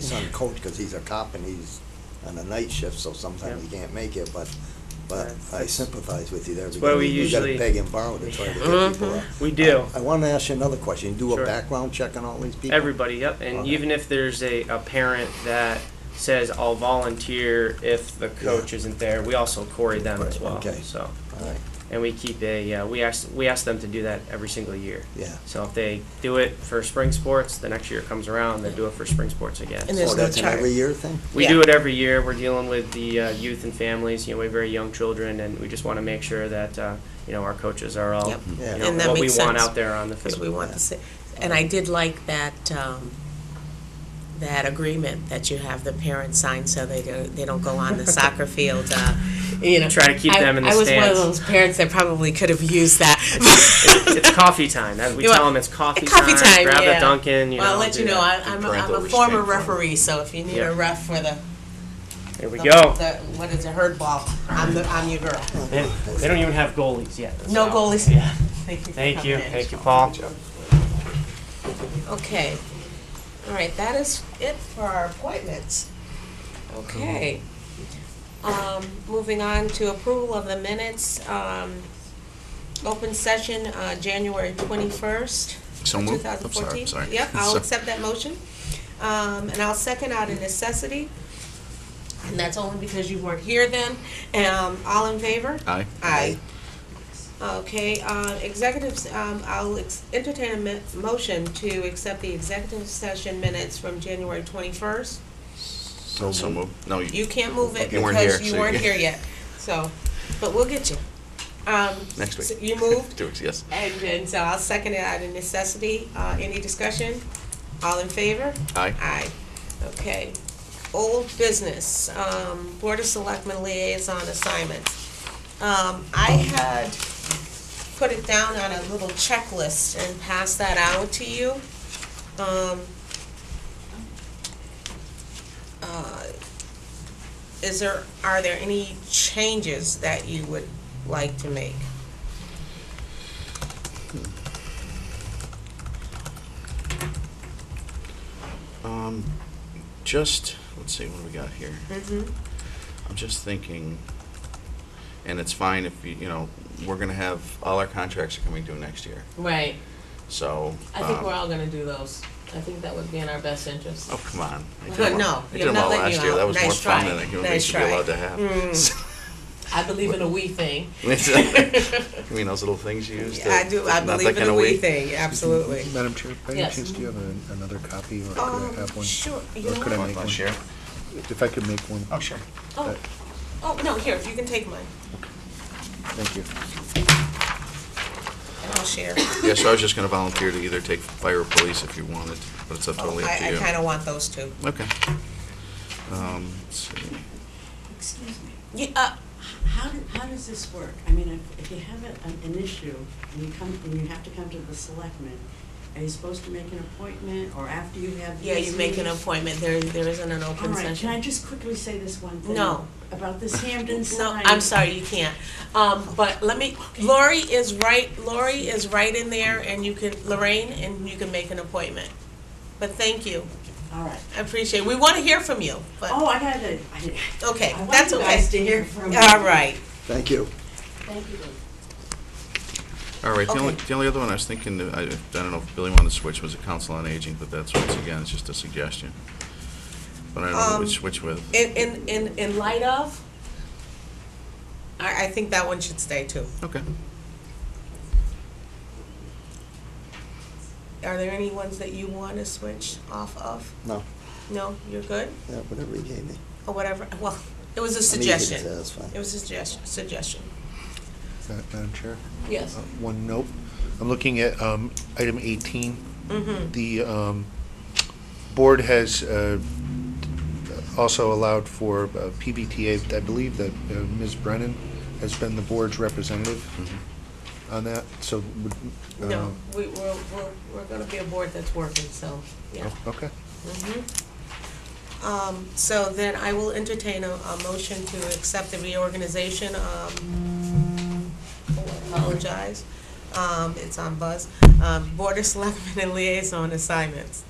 son coach because he's a cop and he's on a night shift, so sometimes he can't make it, but, but That's- I sympathize with you there. why because we You usually- gotta beg and borrow to try to get people up. We do. I wanna ask you another question. You do a Sure. background check on all these people? Everybody, yep. And Okay. even if there's a, a parent that says, I'll volunteer if the coach isn't there, we also query them as Right, well. okay. So, All right, and we keep a, uh, we ask, we ask them to do that every single year. yeah. So if they do it for spring sports, the next year it comes around, they do it for spring sports again. And So- there's Oh, no that's an charge. every year thing? We Yeah. do it every year. We're dealing with the uh, youth and families. You know, we have very young children, and we just want to make sure that uh, you know our coaches are all Yep. Yeah. you know, And that what we makes want sense, out there on the Because we field. want to see, and I did like that, um, that agreement that you have the parents sign so they don't, they don't go on the soccer field, uh, you know. Try to keep I- them in the I was stands. one of those parents that probably could have used that. it's coffee time. That- We You tell want- them it's coffee, Coffee time, Grab yeah. the Dunkin'. You Well, know, I'll let do you know, that. I- I'm, a- I'm Parental a restraint former form. referee, so if you need a Yep. ref for the. There we the- go. the- What is it, herd ball, I'm the, I'm your girl. They, they don't even have goalies yet. No so- goalies. Yeah. Thank you. for Thank coming you. in. Thank you, Paul. Okay, all right, that is it for our appointments. Okay. Um, moving on to approval of the minutes, um, open session, uh, January twenty-first, So two moved. I'm thousand sorry, fourteen. I'm sorry. Yep, I'll So- accept that motion, um, and I'll second out of necessity. And that's only because you weren't here then, um, all in favor? Aye. Aye. Okay, uh, executives, um, I'll ex- entertain a mi- motion to accept the executive session minutes from January twenty-first. So moved. No, you, You can't move it You weren't because here, you so weren't you- here yet, so, but we'll get you. Um, Next week. so You moved, two weeks, yes. and then, so I'll second it out of necessity. Uh, any discussion? All in favor? Aye. Aye. Okay. Old business, um, Board of Selectmen liaison assignments. Um, I had put it down on a little checklist and passed that out to you. Um, uh, Is there, are there any changes that you would like to make? Um, just, let's see, what do we got here? Mm-hmm. I'm just thinking, and it's fine if you, you know, we're gonna have, all our contracts are coming due next year, Right. so. I think um, we're all gonna do those. I think that would be in our best interest. Oh, come on. I did No, them all- no, I you're did them not all letting last you year. out. That was more Nice fun try. than a human being Nice should be try. Mm. allowed to have. I believe in a we thing. You mean those little things you use to? I do, I not that believe in kinda a we weed? thing, absolutely. Madam Chair, by any Yes. chance, do you have an- another copy, or could I Um, have one? sure, you Or know could I what? Want make one? to share? If I could make one. Oh, sure. Oh, oh, no, here, you can take mine, Thank you. and I'll share. Yeah, so I was just gonna volunteer to either take fire or police if you wanted, but it's up totally up to Oh, I, I you. kinda want those two. Okay. Um, let's see. Excuse me, Yeah, uh, how, do- how does this work? I mean, if- if you have a- an, an issue and you come, and you have to come to the selectmen, are you supposed to make an appointment or after you have? yeah, you these make an meetings? appointment, there, there isn't an All open right, can I session. just quickly say this one thing? No. About this Hampton No, sign? I'm sorry, you can't, um, but let me, Lori is right, Lori is right in there, and you can, Lorraine, and you can make an appointment. But thank you, All right. I appreciate, it. we wanna hear from you, but. Oh, I had a, I did- Okay, I want that's you okay. guys to hear from. All right. Thank you. Thank you. All right, the only, Okay. the only other one I was thinking, that I, I don't know if Billy wanted to switch, was a council on aging, but that's, once again, it's just a suggestion. But I don't know Um, which, which with. In, in, in, in light of, I, I think that one should stay too. Okay. Are there any ones that you want to switch off of? No, No, you're good? yeah, whatever you gave me. Or whatever, well, it was a I mean, you can say suggestion. That's fine. It was a suggestion, suggestion. Uh, Madam Chair, Yes. uh, one note. I'm looking at um, item 18. Mm-hmm, The um, board has uh, also allowed for uh, PBTA, I believe that uh, Ms. Brennan has been the board's representative Mm-hmm. on that, so. would, uh, no, we, we're, we're, we're gonna be a board that's working, so, yeah. uh, oh, Okay. Mm-hmm. Um, so then I will entertain a, a motion to accept the reorganization, um, oh, apologize, um, it's on Buzz, um, Board of Selectmen and Liaison Assignments.